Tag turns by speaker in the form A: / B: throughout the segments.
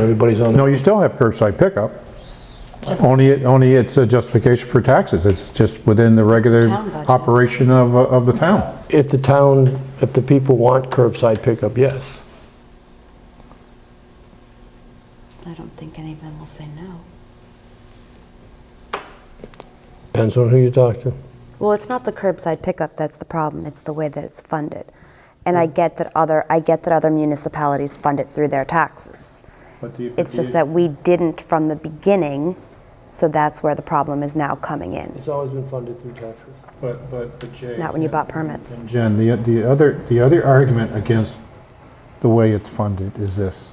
A: everybody's on,
B: No,
A: the-
B: you still have curbside pickup. Only, it- only it's a justification for taxes. It's just within the regular
C: Town budget.
B: operation of, of the town.
A: if the town, if the people want curbside pickup, yes.
C: I don't think any of them will say no.
A: Depends on who you talk to.
D: Well, it's not the curbside pickup that's the problem, it's the way that it's funded. And I get that other, I get that other municipalities fund it through their taxes. It's just that we didn't from the beginning, so that's where the problem is now coming in.
A: It's always been funded through taxes.
B: But, but, but Jay.
D: Not when you bought permits.
B: Jen, the, the other, the other argument against the way it's funded is this.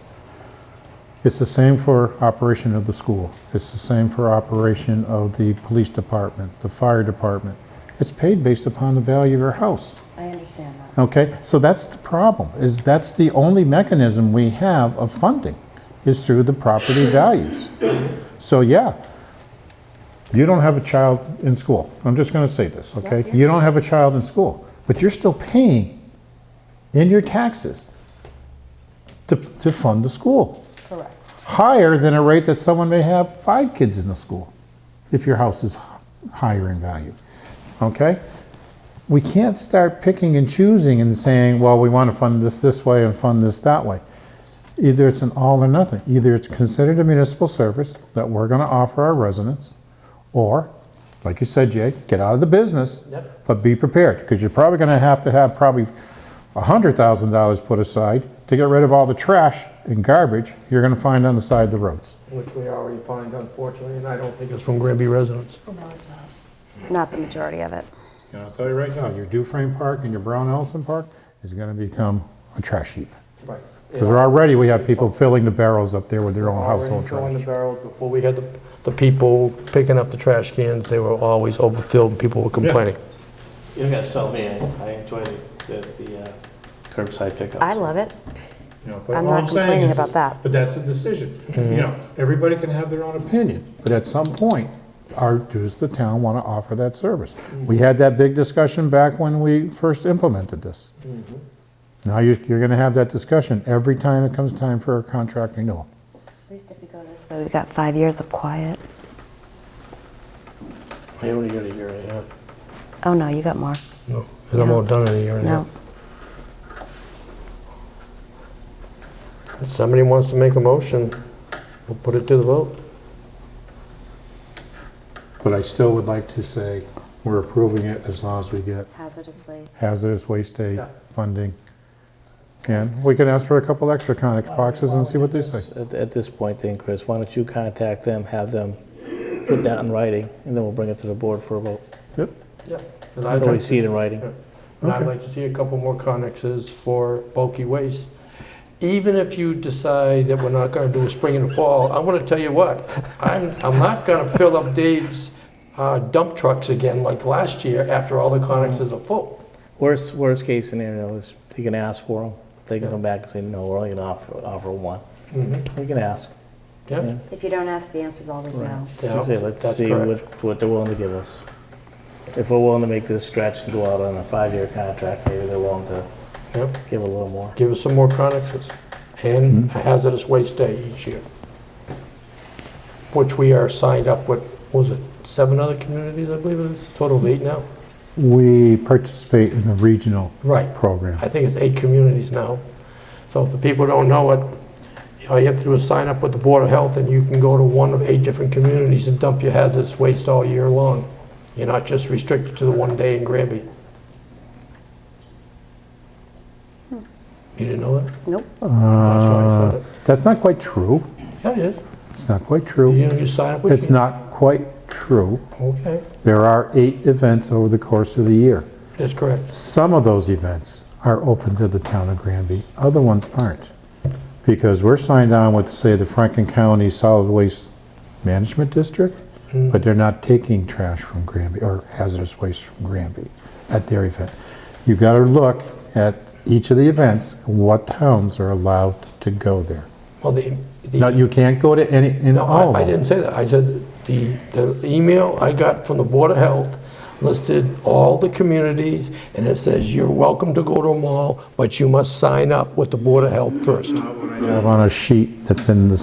B: It's the same for operation of the school. It's the same for operation of the police department, the fire department. It's paid based upon the value of your house.
D: I understand that.
B: Okay, so that's the problem, is that's the only mechanism we have of funding, is through the property values. So, yeah, you don't have a child in school. I'm just gonna say this, okay? You don't have a child in school, but you're still paying in your taxes to, to fund the school.
D: Correct.
B: Higher than a rate that someone may have five kids in the school, if your house is h- higher in value, okay? we can't start picking and choosing and saying, well, we want to fund this this way and fund this that way. Either it's an all or nothing. Either it's considered a municipal service that we're going to offer our residents, or, like you said, Jay, get out of the business.
A: Yep.
B: But be prepared, because you're probably going to have to have probably $100,000 put aside to get rid of all the trash and garbage you're going to find on the side of the roads.
A: Which we already find unfortunately, and I don't think it's from Granby residents.
C: No, it's not.
D: Not the majority of it.
B: And I'll tell you right now, your Dufrane Park and your Brown Ellison Park is going to become a trash heap.
A: Right.
B: Because already we have people filling the barrels up there with their own household
A: Throwing the
B: trash.
A: barrel, before we had the, the people picking up the trash cans, they were always overfilled and people were complaining.
E: You're gonna sell me, I I enjoy the- the, the uh, curbside pickup.
D: I love it.
B: You know, but
D: I'm
B: all
D: not
B: saying
D: complaining
B: is-
D: about that.
B: But that's a decision. You know, everybody can have their own opinion, but at some point, our, does the town want to offer that service?
D: Mm-hmm.
B: We had that big discussion back when we first implemented this.
D: Mm-hmm.
B: Now you're, you're going to have that discussion every time it comes time for a contract renewal.
D: At least if you go this way, we've got five years of quiet.
A: I only got a year and a half.
D: Oh, no, you got more.
A: No, 'cause I'm all done in a year and a
D: No.
A: half. If somebody wants to make a motion, we'll put it to the vote.
B: But I still would like to say, we're approving it as long as we get
D: Hazardous waste.
B: hazardous waste day
A: Yeah.
B: funding. And we can ask for a couple extra Conex boxes and see what they say.
E: At, at this point then, Chris, why don't you contact them, have them put that in writing, and then we'll bring it to the board for a vote.
B: Yep.
A: And
E: I'd
A: I'd like
E: always see
A: to-
E: it in writing.
A: and I'd
B: Okay.
A: like to see a couple more connexes for bulky waste. Even if you decide that we're not gonna do a spring and a fall, I'm gonna tell you what, I'm, I'm not gonna fill up Dave's uh, dump trucks again like last year after all the connexes are full.
E: Worst, worst case scenario is you can ask for them. They can
A: Yeah.
E: come back and say, no, we're only gonna offer, offer one.
A: Mm-hmm.
E: We can ask.
A: Yeah,
D: If you don't ask, the answer's always no.
A: yeah,
E: Say, Let's
A: that's
E: see
A: correct.
E: what, what they're willing to give us. If we're willing to make this stretch and go out on a five-year contract, maybe they're willing to
A: Yep.
E: give a little more.
A: Give us some more connexes and
E: Mm-hmm.
A: a hazardous waste day each year, which we are signed up with, what was it, seven other communities, I believe it is, total of eight now?
B: We participate in the regional
A: Right.
B: program.
A: I think it's eight communities now. So if the people don't know it, all you have to do is sign up with the Board of Health, and you can go to one of eight different communities and dump your hazardous waste all year long. You're not just restricted to the one day in Granby. You didn't know that?
D: Nope.
A: That's why I
B: Uh,
A: said it.
B: That's not quite true.
A: Yeah, it is.
B: It's not quite
A: You
B: true.
A: didn't just sign up with
B: It's not quite true.
A: Okay,
B: There are eight events over the course of the year.
A: that's correct.
B: Some of those events are open to the town of Granby, other ones aren't. Because we're signed on with, say, the Franklin County Solid Waste Management District,
A: Mm.
B: but they're not taking trash from Granby or hazardous waste from Granby at their event. You've got to look at each of the events, what towns are allowed to go there.
A: Well, the. the-
B: Now, you can't go to any, in
A: No,
B: all
A: I- I
B: of them.
A: didn't say that. I said the, the email I got from the Board of Health listed all the communities, and it says, you're welcome to go to them all, but you must sign up with the Board of Health first.
B: I have on a sheet that's in the